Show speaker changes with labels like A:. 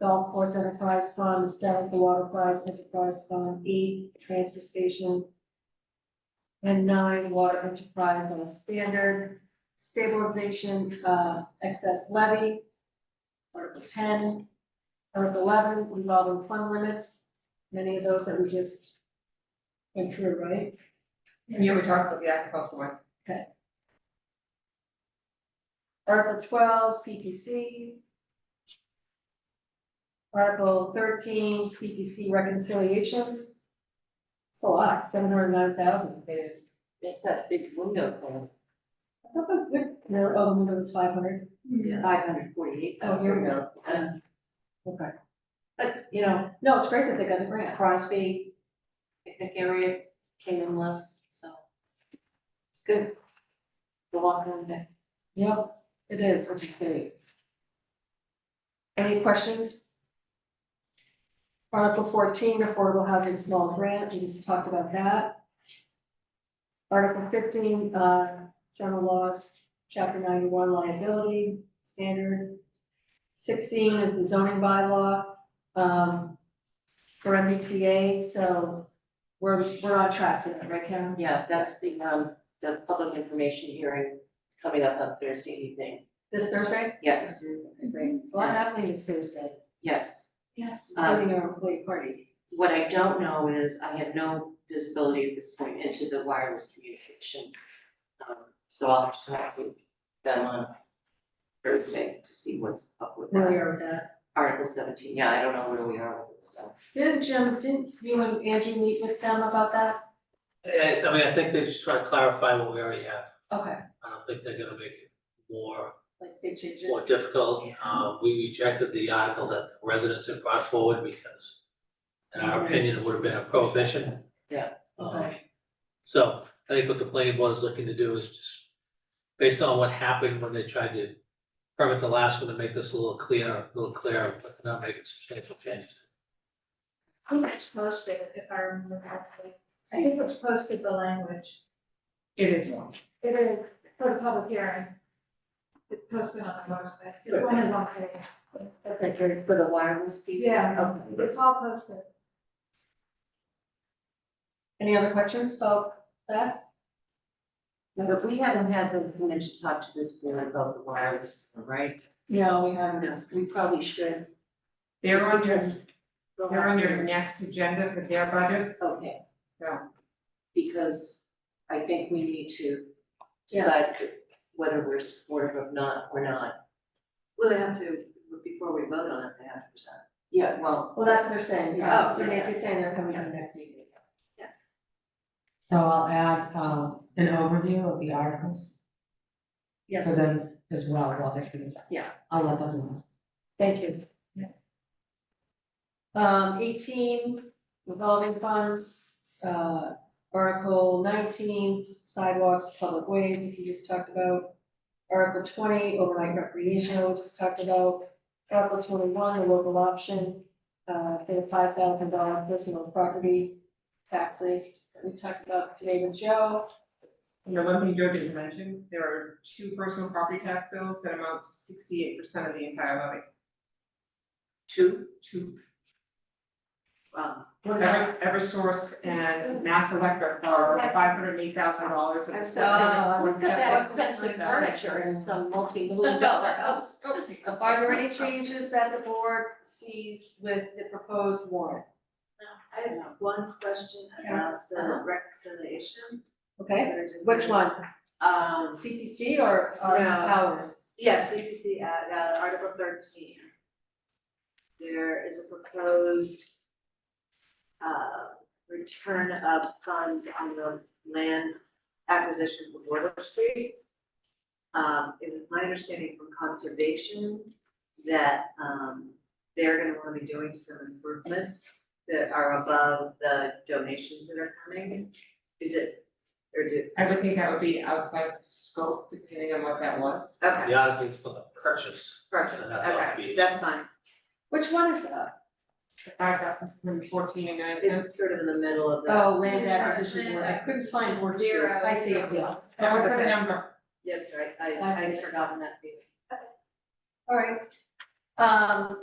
A: Golf Course Enterprise Fund, South Water Prize Enterprise Fund, E, Transfer Station. And nine, Water Enterprise Fund Standard, Stabilization, uh, Excess Levy. Article ten. Article eleven, revolving fund limits, many of those that we just went through, right?
B: Yeah, we talked about the agricultural one.
A: Article twelve, CPC. Article thirteen, CPC reconciliations. It's a lot, seven hundred nine thousand.
B: It is.
C: It's that big window called,
A: I thought that, that- no, oh, no, it was five hundred.
C: five hundred forty-eight
A: Oh, here
C: thousand.
A: we go.
C: Um,
A: Okay.
C: But, you know,
A: No, it's great that they got the grant.
C: Crosby, picnic area came in less, so it's good. The walk around day.
A: Yep, it is, which is great. Any questions? Article fourteen, affordable housing small grant, we just talked about that. Article fifteen, uh, general laws, chapter ninety-one liability standard. Sixteen is the zoning bylaw, um, for MBTA, so we're, we're on track for that, right, Karen?
C: Yeah, that's the, um, the public information hearing coming up on Thursday evening.
A: This Thursday?
C: Yes,
A: Great, it's a lot happening this Thursday.
C: yes.
A: Yes.
C: Um,
A: Including our employee party.
C: What I don't know is I have no visibility at this point into the wireless communication. Um, so I'll have to talk with them on Thursday to see what's up with
A: Where we
C: that.
A: are with that.
C: Article seventeen, yeah, I don't know where we are with this stuff.
A: Didn't Jim, didn't you and Andrew meet with them about that?
D: I, I mean, I think they're just trying to clarify what we already have.
A: Okay,
D: I don't think they're gonna make it more,
A: like big changes.
D: more difficult. Um, we rejected the article that the residents had brought forward because in our opinion, it would have been a prohibition.
C: Yeah.
D: Um, so I think what the planning board is looking to do is just, based on what happened when they tried to permit the last one to make this a little clearer, a little clearer, but not make it substantial changes.
E: I think it's posted, if I remember correctly. I think it's posted the language.
A: It is.
E: It is for the public hearing. It's posted on the website. It's one of them.
C: Okay, for, for the wireless piece?
E: Yeah.
C: Okay.
E: It's all posted.
A: Any other questions about that?
C: But we haven't had the, permission to talk to this board about the wireless, right?
A: No, we
C: We probably should.
B: They're on your,
C: Because-
B: they're on your next agenda for their budgets,
C: Okay,
B: so.
C: because I think we need to
A: Yeah.
C: decide whether we're supportive of not or not. Well, they have to, before we vote on it, they have to present. Yeah, well,
A: Well, that's what they're saying, yeah,
C: Oh,
A: so
C: yeah.
A: Nancy's saying they're coming to the next meeting.
F: So I'll add um an overview of the articles
A: Yes,
F: for them
A: please,
F: as well while they're doing that.
A: Yeah.
F: I'll let them know.
A: thank you. Um, eighteen, revolving funds, uh, article nineteen, sidewalks, public ways, which you just talked about. Article twenty, overnight recreation, we just talked about. Article twenty-one, the local option, uh, for the five thousand dollar personal property taxes, that we talked about today with Joe.
B: You know, one thing Joe didn't mention, there are two personal property tax bills that amount to sixty-eight percent of the entire levy.
C: two,
B: Two,
C: um,
A: What's that?
B: Ever, Eversource and Mass Electric are five hundred and eight thousand dollars.
A: I'm so-
C: uh, look at that
A: That wasn't
C: expensive
A: like that.
C: furniture in some multi-million dollar house.
A: Are there any changes that the board sees with the proposed warrant?
G: I have one question about the reconciliation.
A: Okay,
G: that I just
A: which
G: did.
A: one,
G: Um,
A: CPC or, or
G: No.
A: ours?
G: yes, CPC, uh, uh, Article thirteen. There is a proposed uh, return of funds on the land acquisition of Water Street. Um, it was my understanding from conservation that, um, they're gonna wanna be doing some improvements that are above the donations that are coming. Is it, or did,
B: I would think that would be outside scope, depending on what that was.
G: okay.
D: The article is for the purchase.
G: Purchase,
D: That's how it
G: okay,
D: is.
G: that's fine.
A: Which one is that?
B: Five thousand, fourteen and nine cents.
G: It's sort of in the middle of the,
A: Oh, land acquisition board, I couldn't find board zero, I see it, yeah.
B: That was the number.
G: yeah, right, I,
A: I
G: I
A: see.
G: had forgotten that piece.
A: All right. Um,